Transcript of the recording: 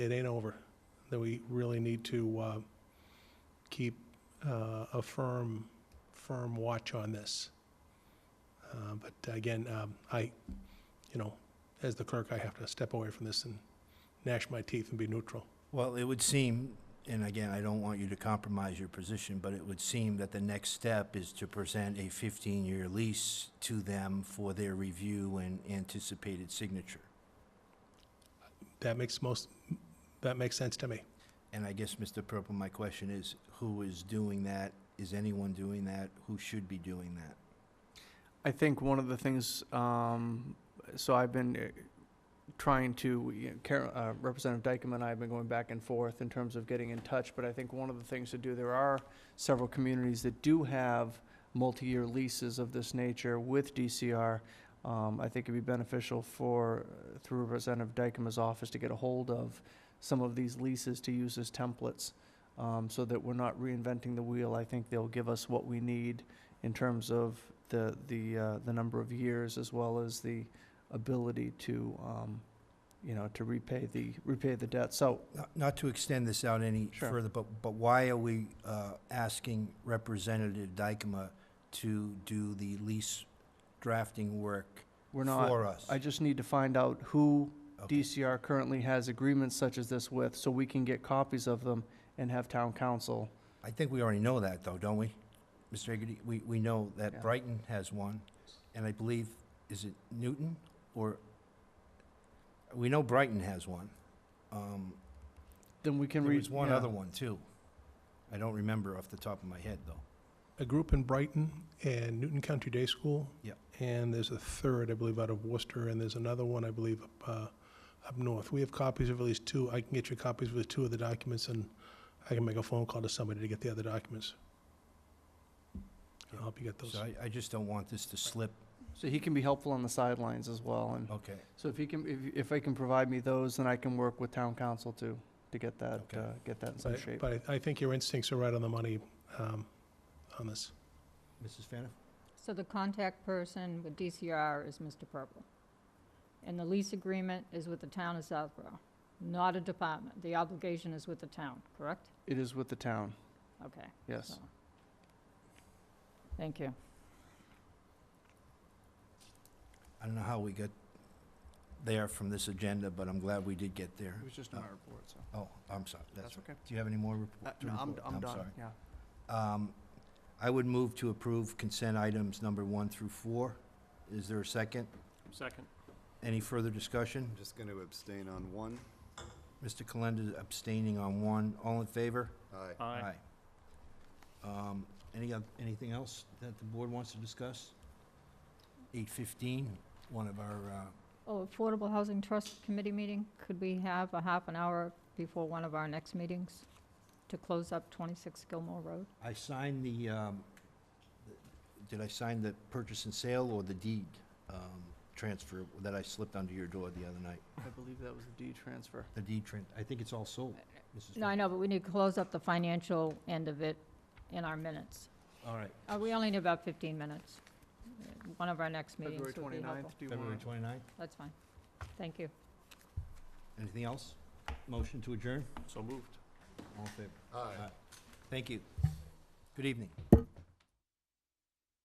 it ain't over, that we really need to uh, keep uh, a firm, firm watch on this. Uh, But again, um, I, you know, as the clerk, I have to step away from this and gnash my teeth and be neutral. Well, it would seem, and again, I don't want you to compromise your position, but it would seem that the next step is to present a 15-year lease to them for their review and anticipated signature. That makes most, that makes sense to me. And I guess, Mr. Purple, my question is, who is doing that? Is anyone doing that? Who should be doing that? I think one of the things, um, so I've been uh, trying to, you know, Car- uh, Representative Dykeman and I have been going back and forth in terms of getting in touch, but I think one of the things to do, there are several communities that do have multi-year leases of this nature with DCR. Um, I think it'd be beneficial for, uh, through Representative Dykeman's office, to get a hold of some of these leases to use as templates, um, so that we're not reinventing the wheel. I think they'll give us what we need in terms of the, the, uh, the number of years as well as the ability to, um, you know, to repay the, repay the debt. So, Not- Not to extend this out any Sure. further, but, but why are we uh, asking Representative Dykema to do the lease drafting work we're not, for us? I just need to find out who Okay. DCR currently has agreements such as this with, so we can get copies of them and have town council. I think we already know that, though, don't we? Mr. Hagerty, we, we know Yeah. that Brighton has one, and I believe, is it Newton, or, we know Brighton has one. Um, Then we can There read. was one yeah. other one, too. I don't remember off the top of my head, though. A group in Brighton and Newton Country Day School. Yep. And there's a third, I believe, out of Worcester, and there's another one, I believe, up, uh, up north. We have copies of at least two. I can get you copies of the two of the documents, and I can make a phone call to somebody to get the other documents. I'll help you get those. So I, I just don't want this to slip. So he can be helpful on the sidelines as well, and Okay, so if he can, if, if they can provide me those, then I can work with town council to, to get that, Okay. uh, get that in some But, shape. but I I think your instincts are right on the money um, on this. Mrs. Faniff? So the contact person with DCR is Mr. Purple. And the lease agreement is with the town of Southborough, not a department. The obligation is with the town, correct? It is with the town, Okay. yes. so. Thank you. I don't know how we got there from this agenda, but I'm glad we did get there. It was just in my report, so, Oh, I'm sorry, that's, that's okay. do you have any more report? Uh, to No, I'm, report? I'm sorry. done, yeah. Um, I would move to approve consent items number one through four. Is there a second? Second. Any further discussion? I'm just going to abstain on one. Mr. Kalenda abstaining on one. All in favor? Aye. Aye. Um, Any, oth- anything else that the board wants to discuss? Eight fifteen, one of our, uh, Oh, Affordable Housing Trust Committee meeting, could we have a half an hour before one of our next meetings to close up 26 Gilmore Road? I signed the, um, th- did I sign the purchase and sale or the deed um, transfer that I slipped under your door the other night? I believe that was the D transfer. The deed tran, I think it's all sold, Mrs. No, I know, but we need to close up the financial end of it in our minutes. All right, Uh, We only need about 15 minutes. One of our next meetings February would be helpful. twenty-ninth, do you February want? twenty-ninth. That's fine. Thank you. Anything else? Motion to adjourn? So moved. All in favor? Aye. Thank you. Good evening.